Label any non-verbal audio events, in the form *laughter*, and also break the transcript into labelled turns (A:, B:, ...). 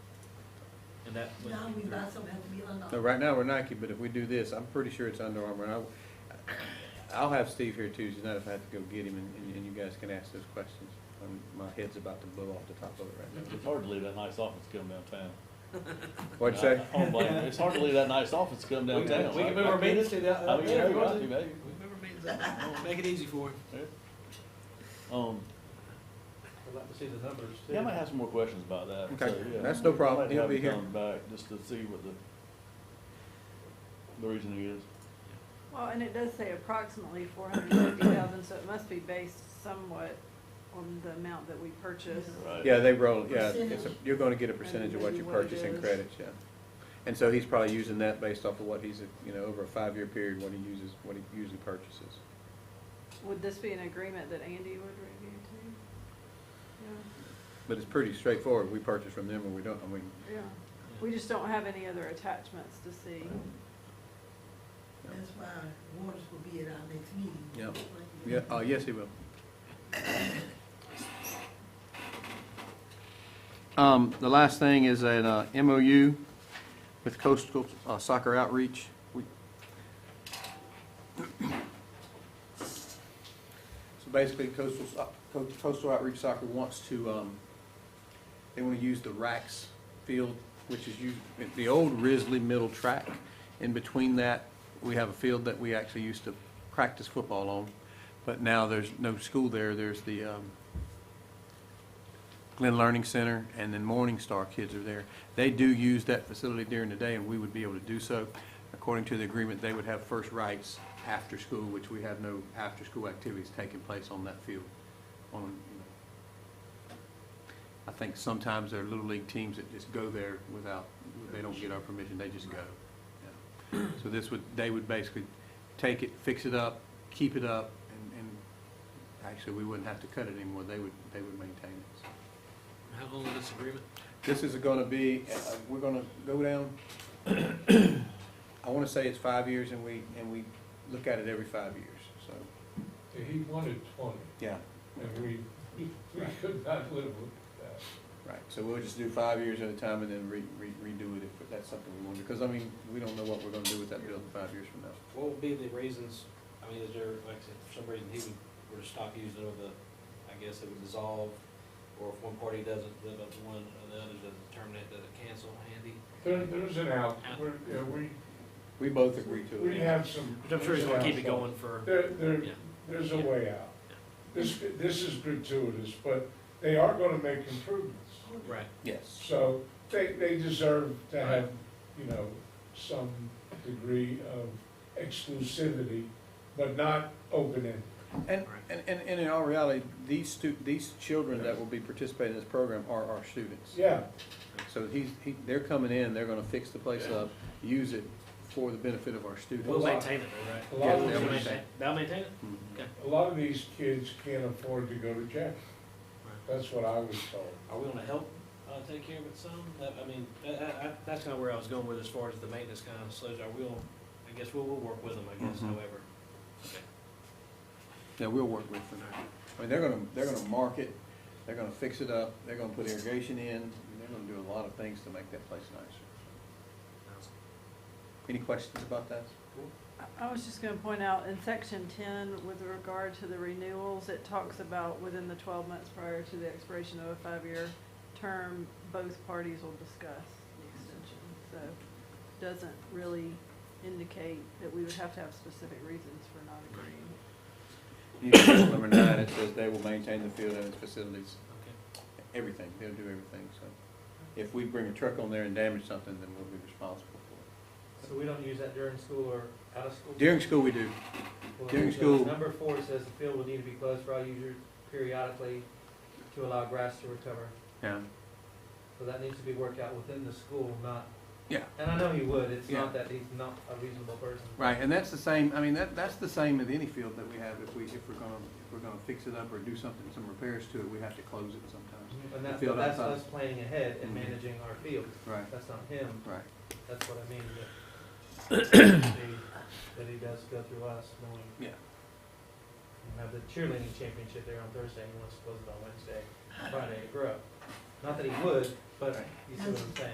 A: And that would
B: Now
A: be
B: we
A: through-
B: also have to be on
C: No,
B: the.
C: right now, we're Nike, but if we do this, I'm pretty sure it's Under Armour, and I, I'll have Steve here Tuesday night if I have to go get him, and- and, and you guys can ask those questions. Um, My head's about to blow off the top of it right
D: It's hard to leave that nice office come downtown.
C: now. What'd you say?
D: I don't blame you. It's hard to leave that nice office come
A: We
D: downtown.
A: can, we can move our meetings to the,
D: I
A: uh,
D: mean,
A: yeah,
D: yeah,
A: if you want
D: you
A: to.
D: got to, baby.
A: We move our
B: *laughs*
A: meetings up.
E: Make it easy for him.
D: Yeah. Um,
A: I'd like to see the numbers too.
D: yeah, I might have some more questions about that.
C: Okay,
D: so, yeah.
C: that's no problem.
D: Might
C: He'll
D: have
C: be
D: him
C: here.
D: come Back, just to see what the, the reasoning is.
F: Well, and it does say approximately four hundred and fifty thousand, so it must be based somewhat on the amount that we purchase.
D: Right.
C: Yeah, they roll, yeah, it's, a-
B: Percentage.
C: you're gonna get a percentage of what you
F: Maybe what it
C: purchase in
F: is.
C: credits, yeah. And so he's probably using that based off of what he's, you know, over a five-year period, what he uses, what he usually purchases.
F: Would this be an agreement that Andy would review too?
C: But it's pretty straightforward, we purchase from them or we don't, I mean,
F: Yeah, yeah. We just don't have any other attachments to see.
B: That's why Waters will be at our next meeting.
C: Yeah. yeah, uh, yes, he will. Um, the last thing is an uh, MOU with Coastal uh, Soccer Outreach. We- So basically, Coastal, Soc- Co- Coastal Outreach Soccer wants to, um, they want to use the Racks field, which is used, the old Risley Middle Track. In between that, we have a field that we actually used to practice football on, but now there's no school there. There's the, um, Glenn Learning Center, and then Morning Star kids are there. They do use that facility during the day, and we would be able to do so. According to the agreement, they would have first rights after school, which we have no after-school activities taking place on that field. On, you know. I think sometimes there are little league teams that just go there without, they don't get our permission, they just go. Yeah. So this would, they would basically take it, fix it up, keep it up, and, and actually, we wouldn't have to cut it anymore. They would, they would maintain it, so.
E: How long is this agreement?
C: This is gonna be, uh, we're gonna go down, I wanna say it's five years and we, and we look at it every five years, so,
G: He wanted twenty,
C: yeah.
G: and we, we could not live with that.
C: Right, so we'll just do five years at a time and then re, re- redo it if that's something we want to, because I mean, we don't know what we're gonna do with that building five years from now.
E: What would be the reasons, I mean, is there, like, I said, for some reason he would, were to stop using it over the, I guess it would dissolve, or if one party doesn't live up to one, or the other doesn't terminate, does it cancel, Andy?
G: There, there's an out, we're, yeah, we,
C: We both agree to it.
G: we have some.
E: Which I'm sure he's gonna keep it going for,
G: There, there,
E: Yeah.
G: there's a
E: Yeah.
G: way out. This, this is gratuitous, but they are gonna make improvements.
E: right,
C: Yes.
G: So they, they deserve to have, you know, some degree of exclusivity, but not open-ended.
C: And, and, and and in all reality, these stu, these children that will be participating in this program are our students.
G: Yeah,
C: So he's, he, they're coming in, they're gonna fix the place up, use it for the benefit of our students.
E: we'll maintain it, though, right?
G: a lot
C: Yeah,
G: of
C: they'll
E: We'll
G: these,
E: maintain, they'll maintain it?
C: Mhm.
G: a lot of these kids can't afford to go to jail. That's what I was told.
E: Are we gonna help, uh, take care of it some? That, I mean, I, I, I- that's kinda where I was going with as far as the maintenance kind of slows, are we will I guess we'll, we'll work with them, I guess,
C: Mhm.
E: however.
C: Yeah, we'll work with them. I mean, they're gonna, they're gonna mark it, they're gonna fix it up, they're gonna put irrigation in, they're gonna do a lot of things to make that place nicer. Any questions about that?
F: I- I was just gonna point out, in section ten, with regard to the renewals, it talks about within the twelve months prior to the expiration of a five-year term, both parties will discuss the extension, so doesn't really indicate that we would have to have specific reasons for not agreeing.
C: You can go Number nine, it says they will maintain the field and its facilities,
E: Okay.
C: everything, they'll do everything, so. If we bring a truck on there and damage something, then we'll be responsible for
A: So we don't use that during school or out of school?
C: it. During school, we do.
A: Well,
C: during
A: so
C: school-
A: Number four says the field will need to be closed for all users periodically to allow grass to recover.
C: Yeah.
A: So that needs to be worked out within the school, not.
C: Yeah.
A: And I know you would, it's
C: Yeah.
A: not that he's not a reasonable person.
C: Right, and that's the same, I mean, that, that's the same with any field that we have, if we, if we're gonna, if we're gonna fix it up or do something, some repairs to it, we have to close it sometimes.
A: And
C: The
A: that's,
C: field
A: but that's
C: outside.
A: us planning ahead
C: Mhm.
A: and managing our field,
C: Right,
A: that's not him,
C: right.
A: that's what I mean, that, he- that he does go through us, knowing.
C: Yeah.
A: You have the cheerleading championship there on Thursday, and he wants to close it on Wednesday, Friday, grow. Not that he would, but you see what I'm saying?